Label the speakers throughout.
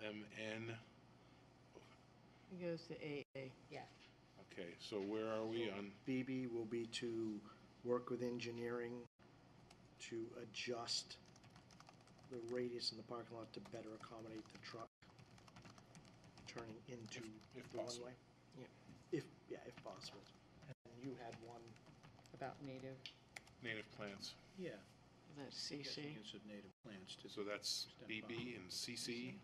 Speaker 1: MN.
Speaker 2: It goes to AA.
Speaker 3: Yeah.
Speaker 1: Okay, so where are we on,
Speaker 4: BB will be to work with engineering to adjust the radius in the parking lot to better accommodate the truck turning into
Speaker 1: If- if
Speaker 4: the
Speaker 1: possible.
Speaker 4: one-way. Yeah, if, yeah, if possible. And you had one,
Speaker 3: About native.
Speaker 1: native plants?
Speaker 5: Yeah.
Speaker 2: That's
Speaker 5: Yes,
Speaker 2: CC.
Speaker 5: Use of native plants to
Speaker 1: So that's BB and CC?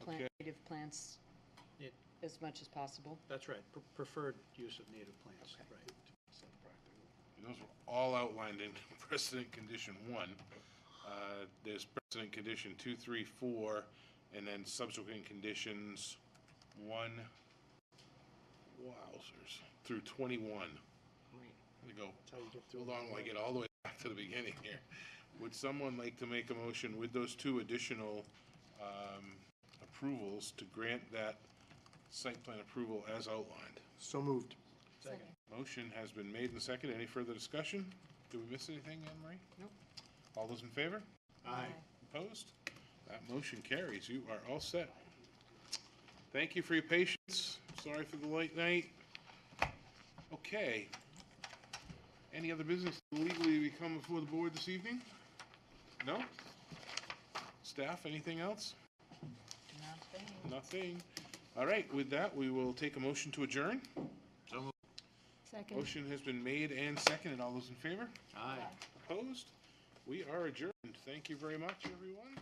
Speaker 3: Plant
Speaker 1: Okay.
Speaker 3: native plants
Speaker 5: It-
Speaker 3: as much as possible.
Speaker 5: That's right, pre- preferred use of native plants,
Speaker 3: Okay.
Speaker 5: right.
Speaker 1: Those were all outlined in precedent condition one. Uh, There's precedent condition two, three, four, and then subsequent conditions one, wowzers, through twenty-one. Let me
Speaker 4: that's how you get
Speaker 1: go
Speaker 4: through.
Speaker 1: too long, I get all the way back to the beginning here. Would someone like to make a motion with those two additional um, approvals to grant that site plan approval as outlined?
Speaker 4: So moved.
Speaker 5: Second.
Speaker 1: Motion has been made and seconded. Any further discussion? Do we miss anything, Anne Marie?
Speaker 3: Nope.
Speaker 1: All those in favor?
Speaker 4: Aye.
Speaker 1: Opposed? That motion carries. You are all set. Thank you for your patience. Sorry for the late night. Okay. Any other business legally to come before the board this evening? No? Staff, anything else? Nothing. All right, with that, we will take a motion to adjourn.
Speaker 3: Second.
Speaker 1: Motion has been made and seconded. All those in favor?
Speaker 5: Aye.
Speaker 1: Opposed? We are adjourned. Thank you very much, everyone.